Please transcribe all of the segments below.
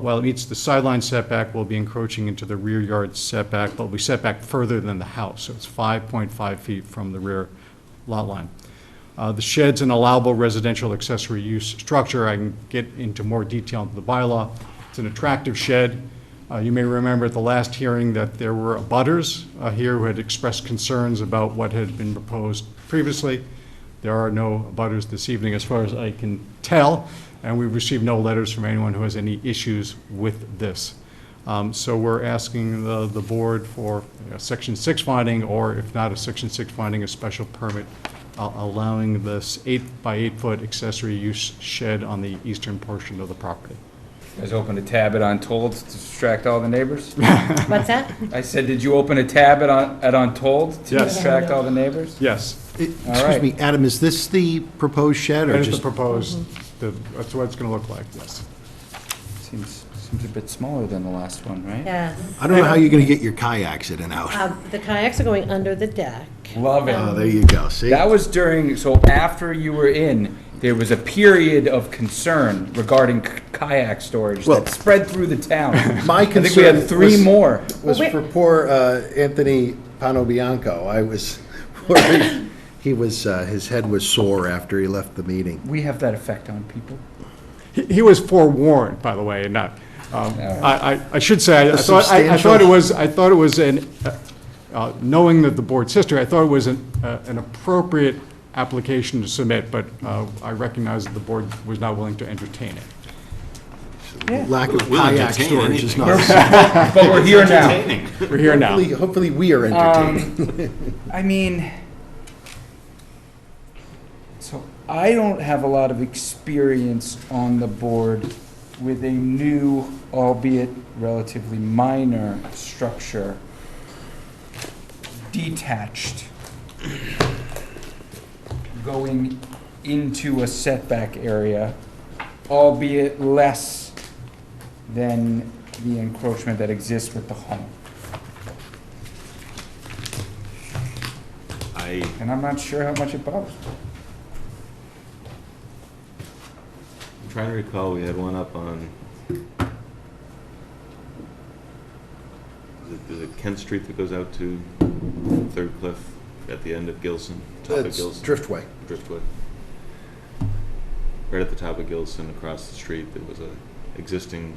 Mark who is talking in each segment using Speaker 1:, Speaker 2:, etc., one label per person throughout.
Speaker 1: While it meets the sideline setback, we'll be encroaching into the rear yard setback, but we'll be set back further than the house, so it's 5.5 feet from the rear lot line. Uh, The shed's an allowable residential accessory use structure. I can get into more detail into the bylaw. It's an attractive shed. Uh, You may remember at the last hearing that there were abutters uh, here who had expressed concerns about what had been proposed previously. There are no abutters this evening, as far as I can tell, and we've received no letters from anyone who has any issues with this. Um, So we're asking the, the board for a section six finding, or if not a section six finding, a special permit uh, allowing this eight by eight foot accessory use shed on the eastern portion of the property.
Speaker 2: You guys opened a tab at Untold to distract all the neighbors?
Speaker 3: What's that?
Speaker 2: I said, did you open a tab at Un- at Untold to
Speaker 1: Yes.
Speaker 2: distract all the neighbors?
Speaker 1: Yes,
Speaker 4: It-
Speaker 2: All
Speaker 4: Excuse
Speaker 2: right.
Speaker 4: me, Adam, is this the proposed shed
Speaker 1: that
Speaker 4: or
Speaker 1: is the
Speaker 4: just?
Speaker 1: proposed, the- that's what it's going to look like, yes.
Speaker 2: Seems, seems a bit smaller than the last one, right?
Speaker 3: Yes.
Speaker 4: I don't know how you're going to get your kayaks in and out.
Speaker 3: Um, The kayaks are going under the deck.
Speaker 2: Love
Speaker 4: Oh,
Speaker 5: Uh,
Speaker 2: it.
Speaker 4: there you go, see?
Speaker 2: That was during, so after you were in, there was a period of concern regarding k- kayak storage
Speaker 5: Well-
Speaker 2: that spread through the town.
Speaker 5: My
Speaker 2: I think we had
Speaker 5: concern
Speaker 2: three
Speaker 5: was-
Speaker 2: more.
Speaker 5: was
Speaker 3: Well, wait-
Speaker 5: for poor uh, Anthony Panobianco. I was worried. He was, uh, his head was sore after he left the meeting.
Speaker 2: We have that effect on people.
Speaker 1: He he was forewarned, by the way, and not, um, I, I- I should say, I- I
Speaker 5: A
Speaker 1: thought, I- I thought it
Speaker 5: substantial-
Speaker 1: was, I thought it was an, uh, uh, knowing that the board's history, I thought it was an, uh, an appropriate application to submit, but uh, I recognize that the board was not willing to entertain it.
Speaker 4: Lack of
Speaker 6: We'll
Speaker 4: kayak
Speaker 6: entertain
Speaker 4: storage is
Speaker 6: anything.
Speaker 4: not.
Speaker 2: But we're here now.
Speaker 1: We're here now.
Speaker 5: Hopefully, hopefully we are
Speaker 3: Uh,
Speaker 5: entertaining.
Speaker 2: Um, I mean, so I don't have a lot of experience on the board with a new, albeit relatively minor, structure detached going into a setback area, albeit less than the encroachment that exists with the home.
Speaker 6: I,
Speaker 2: And I'm not sure how much it bothers me.
Speaker 6: I'm trying to recall, we had one up on, is it- is it Kent Street that goes out to Third Cliff at the end of Gilson, top of
Speaker 5: That's
Speaker 6: Gilson,
Speaker 5: Driftway.
Speaker 6: Driftwood? Right at the top of Gilson, across the street, there was a existing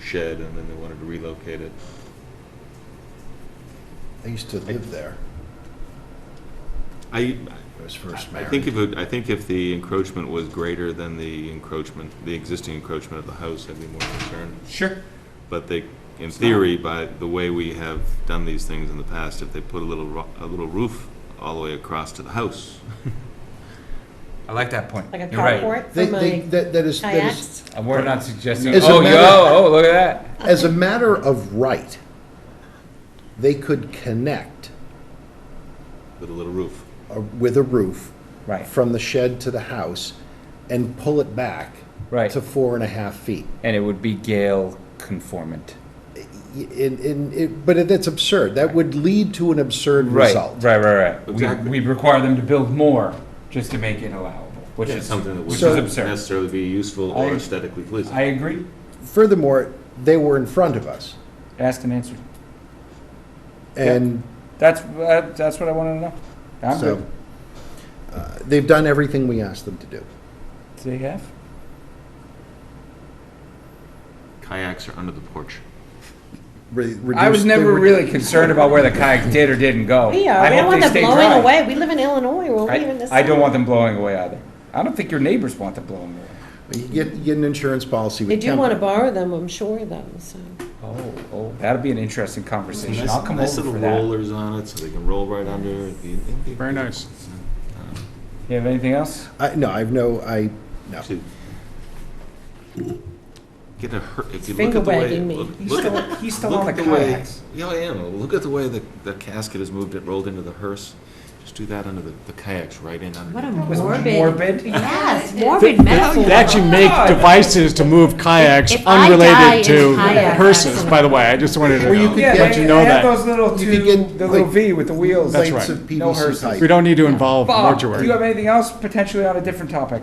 Speaker 6: shed, and then they wanted to relocate it.
Speaker 5: I used to live there.
Speaker 6: I,
Speaker 5: I was first
Speaker 6: I
Speaker 5: married.
Speaker 6: think if, it- I think if the encroachment was greater than the encroachment, the existing encroachment of the house, I'd be more concerned.
Speaker 2: Sure.
Speaker 6: But they, in theory, by the way we have done these things in the past, if they put a little, ro- a little roof all the way across to the house.
Speaker 2: I like that point.
Speaker 3: Like a
Speaker 2: You're right.
Speaker 3: carport for
Speaker 5: They- they-
Speaker 3: my
Speaker 5: That that is, that is,
Speaker 3: kayaks.
Speaker 2: And We're not suggesting,
Speaker 5: As a
Speaker 2: oh,
Speaker 5: matter-
Speaker 2: yo, oh, look at that.
Speaker 5: as a matter of right, they could connect
Speaker 6: With a little roof.
Speaker 5: uh, with a roof
Speaker 2: Right.
Speaker 5: from the shed to the house and pull it back
Speaker 2: Right.
Speaker 5: to four and a half feet.
Speaker 2: And it would be Gale conformant.
Speaker 5: in, in, it, but that's absurd. That would lead to an absurd
Speaker 2: Right,
Speaker 5: result.
Speaker 2: right, right, right.
Speaker 6: Exactly.
Speaker 2: We, we require them to build more just to make it allowable, which
Speaker 6: It's
Speaker 2: is,
Speaker 6: something that
Speaker 2: which is
Speaker 5: So-
Speaker 6: wouldn't
Speaker 2: absurd.
Speaker 6: necessarily be useful
Speaker 2: I-
Speaker 6: or aesthetically pleasing.
Speaker 2: I agree.
Speaker 5: Furthermore, they were in front of us,
Speaker 2: Asked and answered.
Speaker 5: and
Speaker 2: That's, uh, that's what I wanted to know. I'm
Speaker 5: so
Speaker 2: good.
Speaker 5: uh, they've done everything we asked them to do.
Speaker 2: Do they have?
Speaker 6: Kayaks are under the porch.
Speaker 5: Re-
Speaker 2: I was
Speaker 5: reduced-
Speaker 2: never
Speaker 5: they were-
Speaker 2: really concerned about where the kayak did or didn't go.
Speaker 3: We
Speaker 2: I
Speaker 3: are,
Speaker 2: hope
Speaker 3: we don't
Speaker 2: they
Speaker 3: want them
Speaker 2: stay
Speaker 3: blowing
Speaker 2: dry.
Speaker 3: away. We live in Illinois, we're leaving
Speaker 2: I,
Speaker 3: this.
Speaker 2: I don't
Speaker 3: summer.
Speaker 2: want them blowing away either. I don't think your neighbors want them blowing away.
Speaker 5: You get, you get an insurance policy.
Speaker 3: They
Speaker 5: With
Speaker 3: do want to
Speaker 5: temp-
Speaker 3: borrow them, I'm sure, though, so.
Speaker 2: Oh, oh, that'll be an interesting conversation. I'll come
Speaker 6: Nice
Speaker 2: over
Speaker 6: little
Speaker 2: for that.
Speaker 6: rollers on it, so they can roll right under. It'd be- it'd be-
Speaker 1: Very nice.
Speaker 2: You have anything else?
Speaker 5: I, no, I've no. I no.
Speaker 6: to Get a hurt, if you look
Speaker 3: Finger
Speaker 6: at the way.
Speaker 3: wagging me.
Speaker 6: look-
Speaker 2: He's
Speaker 6: look at-
Speaker 2: still- he's still
Speaker 6: look
Speaker 2: on
Speaker 6: at
Speaker 2: the
Speaker 6: way-
Speaker 2: kayaks.
Speaker 6: Yeah, I am. Look at the way the, the casket is moved, it rolled into the hearse. Just do that under the, the kayaks, right in under.
Speaker 7: What a
Speaker 2: Was it
Speaker 7: morbid.
Speaker 2: morbid?
Speaker 7: Yes, morbid metaphor.
Speaker 1: They actually make
Speaker 2: God.
Speaker 1: devices to move kayaks
Speaker 7: If- if I die in
Speaker 1: unrelated to
Speaker 7: kayak
Speaker 1: hearses,
Speaker 7: accident.
Speaker 1: by the way. I just wanted
Speaker 5: Well,
Speaker 1: to
Speaker 5: you could
Speaker 2: Yeah,
Speaker 1: let
Speaker 2: they-
Speaker 1: you know
Speaker 2: they have
Speaker 1: that.
Speaker 2: those little
Speaker 5: You could
Speaker 2: two,
Speaker 5: get,
Speaker 2: the little
Speaker 5: like,
Speaker 2: V with the wheels.
Speaker 1: That's
Speaker 5: plates
Speaker 1: right.
Speaker 5: of
Speaker 2: No
Speaker 5: PVC
Speaker 2: hearses.
Speaker 5: pipe.
Speaker 1: We don't need to involve
Speaker 2: Bob, do you have
Speaker 1: mortuary.
Speaker 2: anything else potentially on a different topic?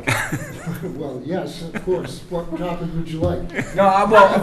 Speaker 8: Well, yes, of course. What topic would you like?
Speaker 2: No, I- well,